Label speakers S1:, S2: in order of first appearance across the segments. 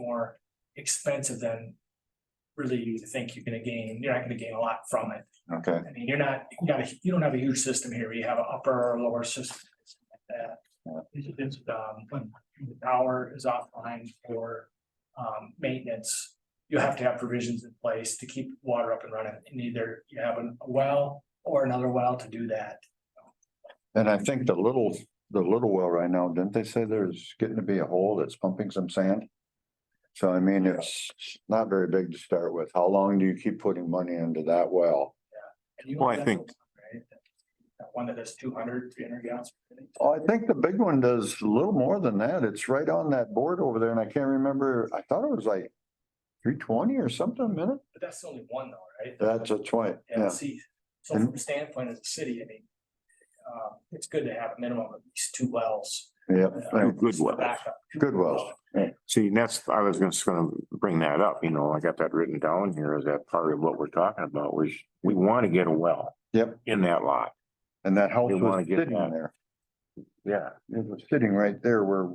S1: more expensive than really you think you're gonna gain. You're not gonna gain a lot from it.
S2: Okay,
S1: I mean, you're not, you got, a- you don't have a huge system here. You have an upper or lower system. like That, It's- it's, um, when the power is offline for, um, maintenance. You have to have provisions in place to keep water up and running, and either you have a well or another well to do that.
S2: and I think the little, the little well right now, didn't they say there's getting to be a hole that's pumping some sand? So I mean, it's not very big to start with. How long do you keep putting money into that well?
S1: And you
S3: Well, I
S1: have
S3: think-
S1: that one, right? That- That one that is 200, 300 gallons. per minute.
S2: Oh, I think the big one does a little more than that. It's right on that board over there and I can't remember, I thought it was like three twenty or something a minute.
S1: But that's only one though, right?
S2: That's a twenty,
S1: And
S2: yeah.
S1: see, so from the standpoint of the city, I mean, uh, it's good to have a minimum of at least two wells.
S2: Yeah,
S1: uh,
S3: good
S1: for
S3: wells.
S1: backup. Two
S2: Good wells.
S3: See, and that's, I was just gonna bring that up, you know, I got that written down here, is that part of what we're talking about, was we wanna get a well.
S2: Yep.
S3: In that lot,
S2: and that house
S3: They wanna
S2: was
S3: get
S2: sitting
S3: that.
S2: there.
S3: yeah.
S2: It was sitting right there where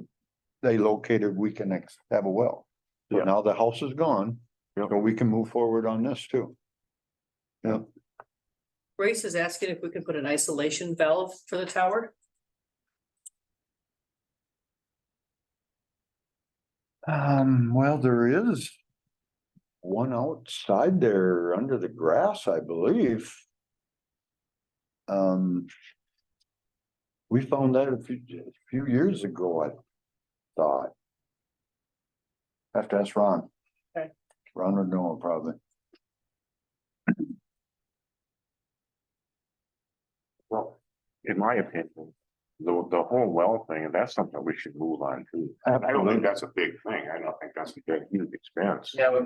S2: they located, we can ex- have a well. So
S3: Yeah.
S2: now the house is gone,
S3: Yep.
S2: so we can move forward on this too.
S4: Grace is asking if we could put an isolation valve for the tower.
S2: Um, well, there is one outside there under the grass, I believe. Um, we found that a few, a few years ago, I thought. Have to ask Ron.
S1: Okay.
S2: Ron would know probably.
S3: Well, in my opinion, the, the whole well thing, and that's something we should move on to. I don't think that's a big thing, I don't think that's a big, huge expense.
S5: Yeah, we-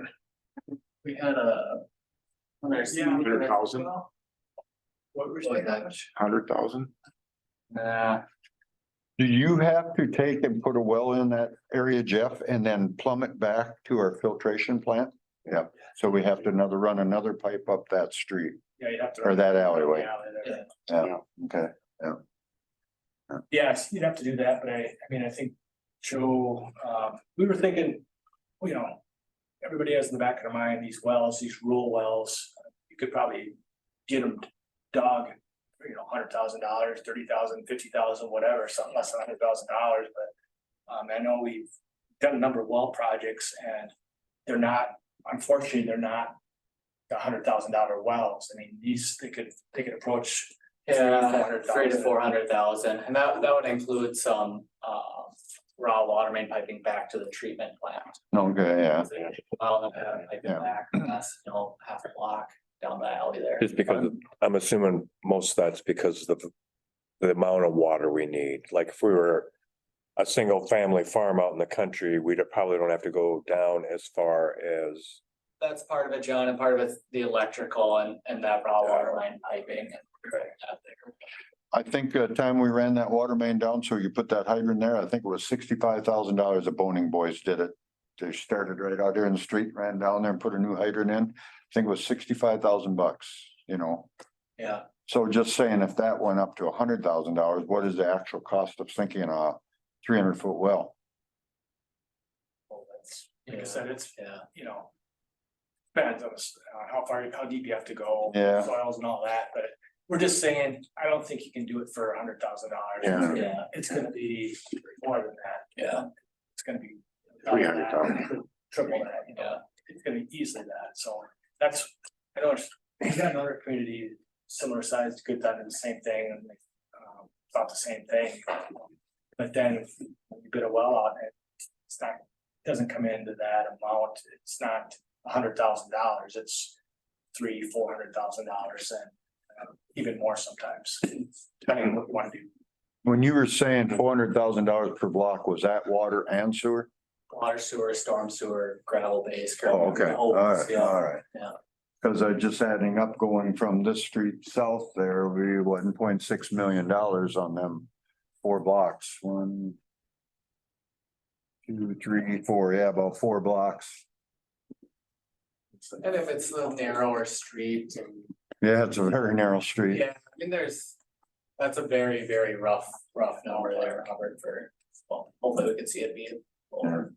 S5: we had a. when I was-
S1: Yeah.
S3: Hundred thousand,
S1: What were you
S5: Like
S1: saying?
S5: that.
S3: hundred thousand,
S5: Nah,
S2: Do you have to take and put a well in that area, Jeff, and then plumb it back to our filtration plant? Yeah, so we have to another, run another pipe up that street
S1: Yeah, you'd have to.
S2: or that alleyway.
S1: Alley there.
S5: Yeah.
S2: Okay,
S1: Yes, you'd have to do that, but I, I mean, I think Joe, um, we were thinking, you know. Everybody has in the back of their mind, these wells, these rural wells, you could probably get them dug. for, You know, hundred thousand dollars, thirty thousand, fifty thousand, whatever, something less than hundred thousand dollars, but. Um, I know we've done a number of well projects and they're not, unfortunately, they're not. The hundred thousand dollar wells, I mean, these, they could, they could approach. three,
S5: yeah,
S1: 400,000.
S5: three to four hundred thousand, and that, that would include some, um, raw water main piping back to the treatment plant.
S2: okay, yeah.
S5: Well, uh, piping
S2: Yeah.
S5: back, that's, you know, half a block down the alley there.
S6: Just because, of- I'm assuming most of that's because of the, the amount of water we need. Like if we were a single family farm out in the country, we'd probably don't have to go down as far as,
S5: That's part of it, John, and part of it's the electrical and, and that raw water line piping and. that there.
S2: I think the time we ran that water main down, so you put that hydrant there, I think it was sixty-five thousand dollars The Boning Boys did it. They started right out there in the street, ran down there and put a new hydrant in. I think it was sixty-five thousand bucks, you know?
S5: Yeah,
S2: So just saying, if that went up to a hundred thousand dollars, what is the actual cost of sinking a three hundred foot well?
S5: well, that's,
S1: Like I
S5: yeah,
S1: said, it's
S5: yeah.
S1: you know. Depends on s- on uh, how far, how deep you have to go.
S2: Yeah.
S1: Soils and all that, but we're just saying, I don't think you can do it for a hundred thousand dollars.
S3: Yeah.
S5: Yeah,
S1: It's gonna be more than that,
S5: yeah,
S1: it's gonna be.
S3: three hundred thousand.
S1: Triple that, you know, it's gonna be easily that, so that's, I know, it's- we've got another community similar size, good done the same thing and they. um, Thought the same thing, but then if you bid a well out and it's not, doesn't come into that amount, it's not a hundred thousand dollars, it's. Three, four hundred thousand dollars and uh, even more sometimes, depending on what you wanna do.
S2: When you were saying four hundred thousand dollars per block, was that water and sewer?
S5: water sewer, storm sewer, gravel base.
S2: Oh, okay, all right, all right.
S5: Yeah.
S2: Cause I just adding up going from this street south there, we one point six million dollars on them four blocks, one, two, three, four, yeah, about four blocks.
S5: And if it's a narrower street and,
S2: Yeah, it's a very narrow street.
S5: yeah, I mean, there's, that's a very, very rough, rough number there, Robert, for, well, hopefully we can see it being. lower.